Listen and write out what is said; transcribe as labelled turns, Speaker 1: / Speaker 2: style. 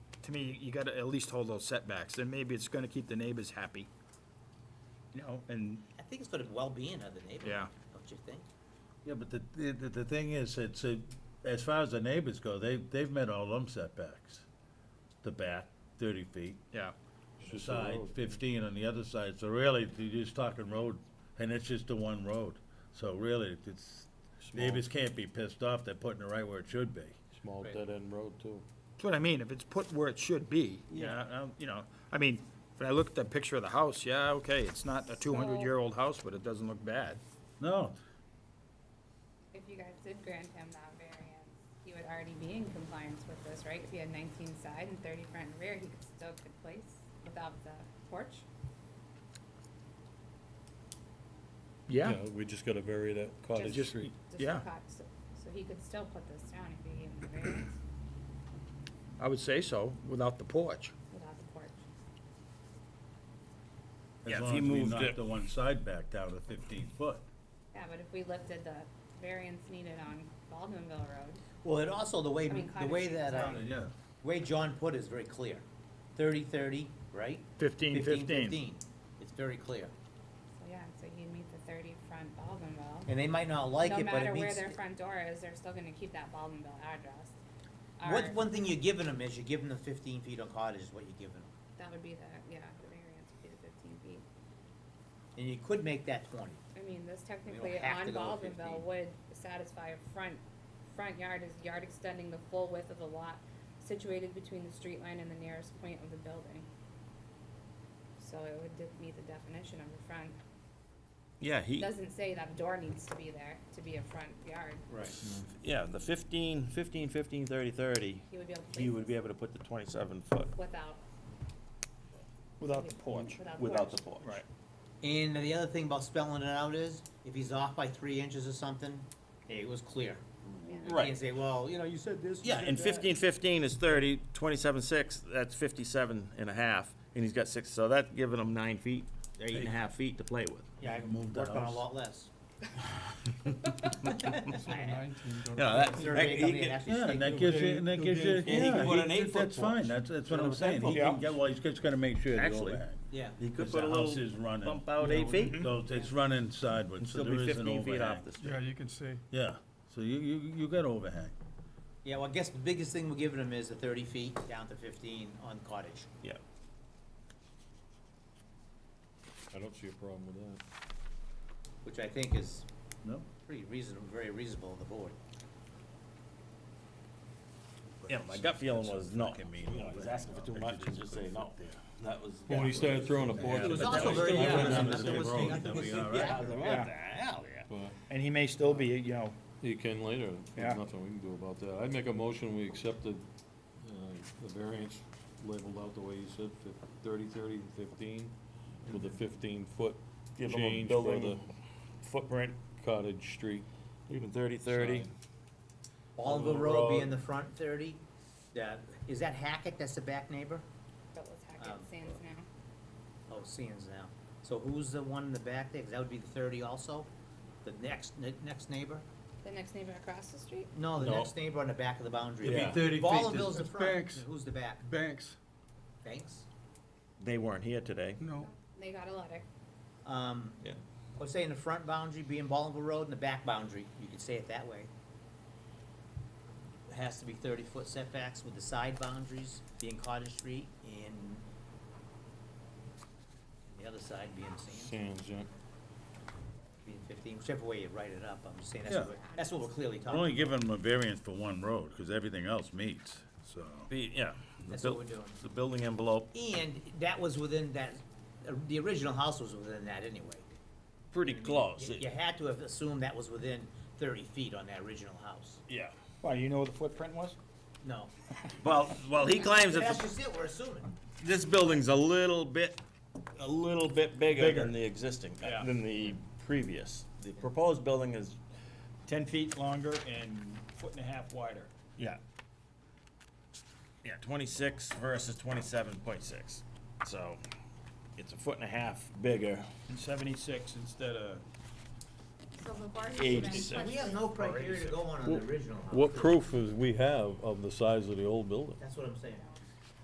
Speaker 1: to me, you gotta at least hold those setbacks, and maybe it's gonna keep the neighbors happy. You know, and,
Speaker 2: I think it's for the well-being of the neighborhood.
Speaker 1: Yeah.
Speaker 2: Don't you think?
Speaker 3: Yeah, but the, the, the- the thing is, it's, a- as far as the neighbors go, they, they've met all them setbacks. The back, thirty feet,
Speaker 1: yeah,
Speaker 3: the side, fifteen on the other side, so really, you're just talking road, and it's just the one road. So really, it's, neighbors can't be pissed off, they're putting it right where it should be.
Speaker 4: Small
Speaker 2: Right.
Speaker 4: dead-end road, too.
Speaker 1: that's what I mean, if it's put where it should be, yeah, you know, I mean, when I look at the picture of the house, yeah, okay, it's not a two hundred year old house, but it doesn't look bad.
Speaker 3: No,
Speaker 5: If you guys did grant him that variance, he would already be in compliance with this, right? If he had nineteen side and thirty front and rear, he could still could place without the porch.
Speaker 1: Yeah,
Speaker 4: We just gotta vary that cottage
Speaker 5: Just-
Speaker 4: street.
Speaker 5: just the
Speaker 1: Yeah.
Speaker 5: cot- So so he could still put this down if he gave him the variance
Speaker 1: I would say so, without the porch.
Speaker 5: without the porch.
Speaker 3: as
Speaker 1: Yeah, if
Speaker 3: long
Speaker 1: he
Speaker 3: as we
Speaker 1: moved
Speaker 3: knock
Speaker 1: it-
Speaker 3: the one side back down to fifteen foot.
Speaker 5: Yeah, but if we lifted the variance needed on Baldwinville Road,
Speaker 2: Well, and also the way,
Speaker 5: I mean,
Speaker 2: the way
Speaker 5: cottage
Speaker 2: that, uh,
Speaker 5: is
Speaker 3: Yeah,
Speaker 2: way John put it is very clear. Thirty, thirty, right?
Speaker 1: Fifteen, fifteen.
Speaker 2: Fifteen, it's very clear.
Speaker 5: so yeah, so he'd meet the thirty front Baldwinville.
Speaker 2: And they might not like
Speaker 5: No
Speaker 2: it, but
Speaker 5: matter
Speaker 2: it
Speaker 5: where
Speaker 2: means,
Speaker 5: their front door is, they're still gonna keep that Baldwinville address.
Speaker 2: what's
Speaker 5: Or-
Speaker 2: one thing you're giving them is you're giving them fifteen feet on cottage is what you're giving them.
Speaker 5: That would be the, yeah, the variance would be the fifteen feet.
Speaker 2: And you could make that twenty.
Speaker 5: I mean, this technically
Speaker 2: have
Speaker 5: on
Speaker 2: to go with
Speaker 5: Baldwinville
Speaker 2: 15.
Speaker 5: would satisfy a front, front yard is yard extending the full width of the lot situated between the street line and the nearest point of the building. So it would de- meet the definition of a front.
Speaker 6: Yeah, he,
Speaker 5: Doesn't say that door needs to be there to be a front yard.
Speaker 2: Right.
Speaker 6: yeah, the 15, 15, 15, 30, 30,
Speaker 5: He would be able to.
Speaker 6: he would be
Speaker 5: place
Speaker 6: able to put the 27 foot
Speaker 5: this Without,
Speaker 1: Without the porch.
Speaker 5: without the
Speaker 6: without
Speaker 5: porch.
Speaker 6: the porch.
Speaker 1: Right.
Speaker 2: And the other thing about spelling it out is, if he's off by three inches or something, it was clear. You
Speaker 6: Right.
Speaker 2: can't say, well, you know, you said this. you
Speaker 6: Yeah,
Speaker 2: said
Speaker 6: and
Speaker 2: that."
Speaker 6: 15, 15 is 30, 27, 6, that's 57 and a half, and he's got six, so that's giving him nine feet, eight and a half feet to play with.
Speaker 2: Yeah, I can
Speaker 3: Move the
Speaker 2: work on a
Speaker 3: house.
Speaker 2: lot less.
Speaker 6: You know, that,
Speaker 2: Survey
Speaker 6: that- he
Speaker 2: company
Speaker 6: could-
Speaker 2: actually
Speaker 3: Yeah, and
Speaker 2: state
Speaker 3: that gives you, and that gives you,
Speaker 6: he
Speaker 3: yeah,
Speaker 6: can put
Speaker 3: he-
Speaker 6: an eight-foot
Speaker 3: that's fine,
Speaker 6: porch.
Speaker 3: that's, that's what
Speaker 6: Put
Speaker 3: I'm
Speaker 6: a
Speaker 3: saying, he
Speaker 6: ten-foot
Speaker 3: can, get- well, he's just gonna make sure the
Speaker 6: Actually,
Speaker 3: overhang.
Speaker 2: Yeah,
Speaker 6: he could
Speaker 3: 'cause
Speaker 6: put a
Speaker 3: the house
Speaker 6: little
Speaker 3: is running.
Speaker 6: bump out eight feet, and
Speaker 3: So it's running sideways, so
Speaker 6: still
Speaker 3: there
Speaker 6: be
Speaker 3: is an
Speaker 6: 15 feet off
Speaker 3: overhang.
Speaker 6: the street.
Speaker 7: Yeah, you can see.
Speaker 3: Yeah, so you, you, you got overhang.
Speaker 2: yeah, well, I guess the biggest thing we're giving them is the thirty feet down to fifteen on cottage.
Speaker 6: Yeah,
Speaker 4: I don't see a problem with that.
Speaker 2: which I think is
Speaker 3: No?
Speaker 2: pretty reasonable, very reasonable of the board.
Speaker 6: yeah, my gut feeling was no,
Speaker 3: fucking
Speaker 6: you
Speaker 3: mean
Speaker 6: know, he's
Speaker 3: overhang,
Speaker 6: asking for too much, and just say no, that was.
Speaker 4: When he started throwing a porch.
Speaker 3: It was
Speaker 4: but
Speaker 3: also
Speaker 4: that
Speaker 3: very
Speaker 4: still
Speaker 3: narrow.
Speaker 4: within the
Speaker 3: Nothing
Speaker 4: same
Speaker 3: was-
Speaker 4: road,
Speaker 3: nothing was-
Speaker 1: Yeah.
Speaker 4: but
Speaker 1: And he may still be, you know,
Speaker 4: He can later,
Speaker 1: Yeah.
Speaker 4: there's nothing we can do about that. I'd make a motion, we accepted, uh, the variance labeled out the way you said, fif- thirty, thirty, and fifteen, with the fifteen-foot
Speaker 6: Give him a
Speaker 4: change for the
Speaker 6: building footprint,
Speaker 4: cottage street.
Speaker 6: even 30, 30.
Speaker 4: sign.
Speaker 2: Oliver Road being the front thirty, that, is that Hackett, that's the back neighbor?
Speaker 5: But let's hack
Speaker 2: Um,
Speaker 5: it, stands now.
Speaker 2: Oh, Sands now. So who's the one in the back there, 'Cause that would be the thirty also? The next, ne- next neighbor?
Speaker 5: The next neighbor across the street?
Speaker 2: No, the
Speaker 4: No.
Speaker 2: next neighbor on the back of the boundary.
Speaker 4: It'd be
Speaker 2: line.
Speaker 7: 30 feet,
Speaker 2: Bolivar's
Speaker 7: it's-
Speaker 2: the
Speaker 7: it's
Speaker 2: front,
Speaker 7: banks.
Speaker 2: and who's the back?
Speaker 7: Banks,
Speaker 2: Banks?
Speaker 6: They weren't here today.
Speaker 7: no.
Speaker 5: They got a letter.
Speaker 2: Um,
Speaker 6: Yeah.
Speaker 2: I was saying the front boundary being Bolivar Road and the back boundary, you could say it that way. It Has to be thirty-foot setbacks with the side boundaries being Cottage Street and the other side being Sands,
Speaker 4: Sands, yeah.
Speaker 2: being fifteen, whichever way you write it up, I'm just saying, that's
Speaker 3: Yeah.
Speaker 2: what, we're- that's what we're clearly
Speaker 3: We're only
Speaker 2: talking about.
Speaker 3: giving them a variance for one road, because everything else meets, so.
Speaker 6: The, yeah. the
Speaker 2: That's what
Speaker 6: buil-
Speaker 2: we're doing.
Speaker 6: The building envelope,
Speaker 2: And that was within that, uh, the original house was within that anyway.
Speaker 6: pretty close.
Speaker 2: You- You had to have assumed that was within thirty feet on that original house.
Speaker 6: Yeah.
Speaker 1: why, you know what the footprint was?
Speaker 2: No,
Speaker 6: Well, well, he claims
Speaker 2: that's
Speaker 6: that
Speaker 2: just it, we're assuming.
Speaker 6: this building's a little bit, a little bit bigger than the existing,
Speaker 1: Yeah.
Speaker 6: than the previous. The proposed building is,
Speaker 1: Ten feet longer and foot and a half wider.
Speaker 6: yeah. Yeah, twenty-six versus twenty-seven point six. So it's a foot and a half bigger.
Speaker 1: And seventy-six instead of.
Speaker 5: So before
Speaker 6: Age
Speaker 5: he even
Speaker 6: decision.
Speaker 5: puts
Speaker 2: We have no criteria to go on on the original house.
Speaker 4: What proof is we have of the size of the old building?
Speaker 2: That's what I'm saying.